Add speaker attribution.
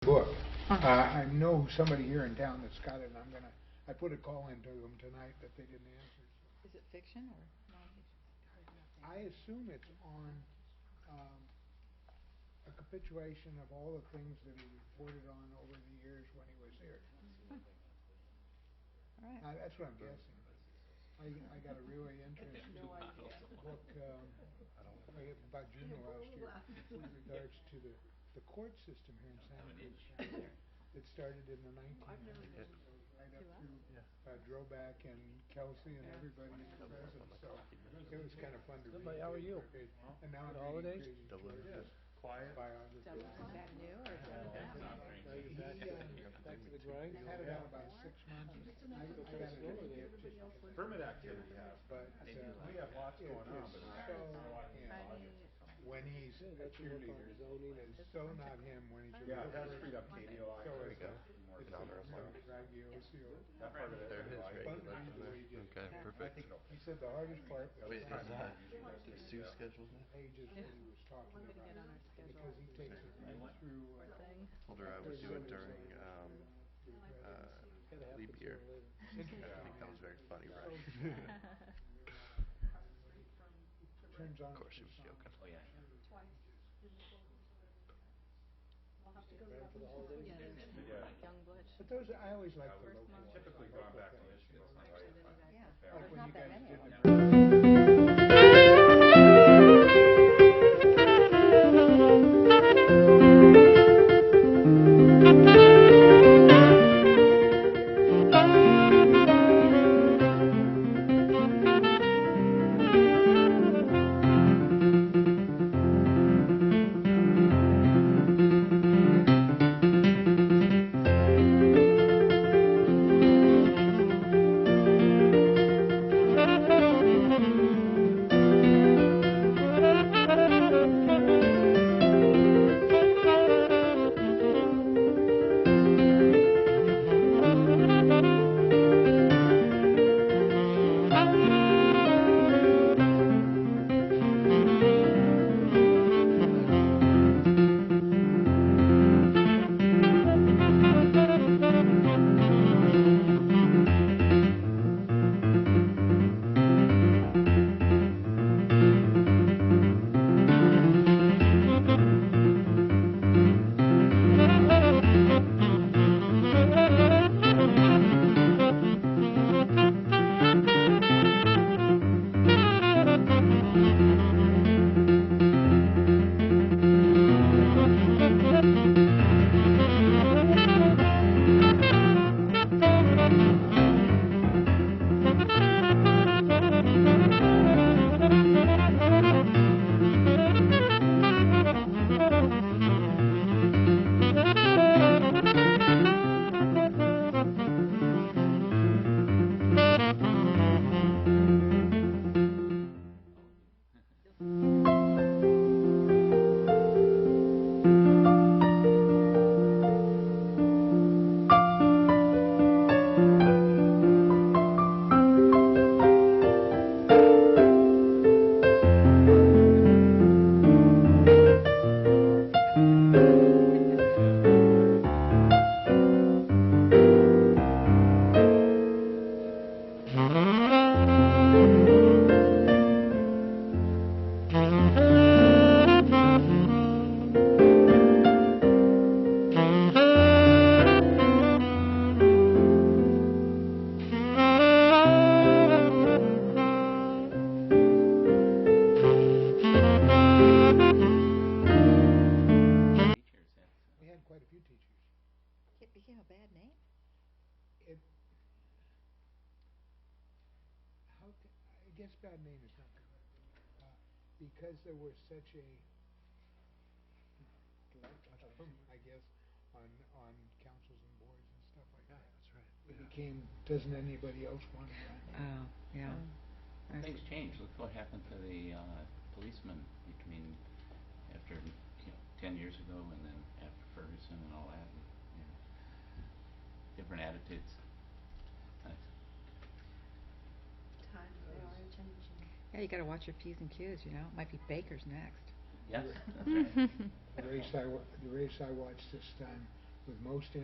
Speaker 1: Uh, I know somebody here in town that's got it, and I'm gonna, I put a call into them tonight, but they didn't answer.
Speaker 2: Is it fiction or nonfiction?
Speaker 1: I assume it's on, um, a capitulation of all the things that he reported on over the years when he was here.
Speaker 2: All right.
Speaker 1: Uh, that's what I'm guessing. I, I got a really interesting book, um, like about June of last year with regards to the, the court system here in San Cruz. It started in the nineteen hundreds, right up through, uh, Droback and Kelsey and everybody in the present, so it was kind of fun to read.
Speaker 3: Somebody, how are you?
Speaker 1: It- And now
Speaker 3: Good
Speaker 1: I'm reading
Speaker 3: holidays?
Speaker 1: Crazy
Speaker 4: Delivered
Speaker 1: George's
Speaker 4: Quiet.
Speaker 1: biography.
Speaker 2: So is that new or is that old?
Speaker 3: Now you're back,
Speaker 1: He, um,
Speaker 3: back to the grind?
Speaker 1: Had it out about six months. I, I got it in a gift,
Speaker 4: Permit activity has,
Speaker 1: but, uh,
Speaker 4: we have lots
Speaker 1: it
Speaker 4: going on,
Speaker 1: is
Speaker 4: but
Speaker 1: so,
Speaker 4: it's.
Speaker 1: you know,
Speaker 2: I mean,
Speaker 1: when he's a
Speaker 3: Yeah, that's your work on
Speaker 1: cheerleader.
Speaker 3: zoning and.
Speaker 1: It's so not him when he's a
Speaker 4: Yeah, it has
Speaker 1: realtor.
Speaker 4: freed up KDOI.
Speaker 1: So
Speaker 4: There we
Speaker 1: it's a-
Speaker 4: go.
Speaker 1: It's
Speaker 4: More
Speaker 1: a,
Speaker 4: dollars
Speaker 1: you know,
Speaker 4: left.
Speaker 1: Grazioso.
Speaker 4: That part of it.
Speaker 5: There it is,
Speaker 4: I-
Speaker 5: right,
Speaker 1: Fun
Speaker 5: you
Speaker 1: read the
Speaker 5: left it
Speaker 1: way he did.
Speaker 5: there. Okay, perfect.
Speaker 1: He said the hardest part was
Speaker 5: Wait, is that,
Speaker 4: Yeah.
Speaker 5: is Sue scheduled now?
Speaker 1: pages that he was talking
Speaker 2: We're gonna get on
Speaker 1: about.
Speaker 2: our schedule
Speaker 1: Because he takes it right through,
Speaker 2: or
Speaker 1: uh,
Speaker 2: thing.
Speaker 5: Told her I would do it during, um, uh,
Speaker 3: Gotta happen
Speaker 5: leap year.
Speaker 3: sooner or later.
Speaker 5: I think that was very funny, right?
Speaker 2: Twice.
Speaker 1: turns on.
Speaker 5: Of course, she was joking.
Speaker 3: Ready for the holidays?
Speaker 2: Yeah, there's
Speaker 4: Yeah.
Speaker 2: Youngblood.
Speaker 1: But those, are- I always like the
Speaker 4: First
Speaker 1: local
Speaker 2: month.
Speaker 1: ones.
Speaker 4: Typically
Speaker 1: I
Speaker 4: gone back
Speaker 1: like
Speaker 4: to
Speaker 1: that.
Speaker 4: Michigan. it's not right. Like when
Speaker 1: It's not like- Like when
Speaker 2: Yeah. There's not
Speaker 1: you
Speaker 2: that
Speaker 1: guys
Speaker 2: many
Speaker 1: did
Speaker 2: of them.
Speaker 1: the- We had quite a few teachers.
Speaker 2: It became a bad name.
Speaker 1: It, how, ca- I guess bad name is not correct. Uh, Because there was such a, collectivism, I guess, on, on councils and boards and stuff like that.
Speaker 5: That's right. Uh,
Speaker 1: It became, doesn't anybody else want it?
Speaker 6: Oh, yeah.
Speaker 7: Things change. Look what happened to the uh, policeman. I mean, after you know, ten years ago, and then after Ferguson and all that, and, you know, different attitudes. Thanks.
Speaker 8: times they are changing.
Speaker 6: Yeah, you gotta watch your P's and Q's, you know? Might be Baker's next.
Speaker 2: Mm-hmm.
Speaker 7: Yes. that's right.
Speaker 1: The race I, wa- the race I watched this time with most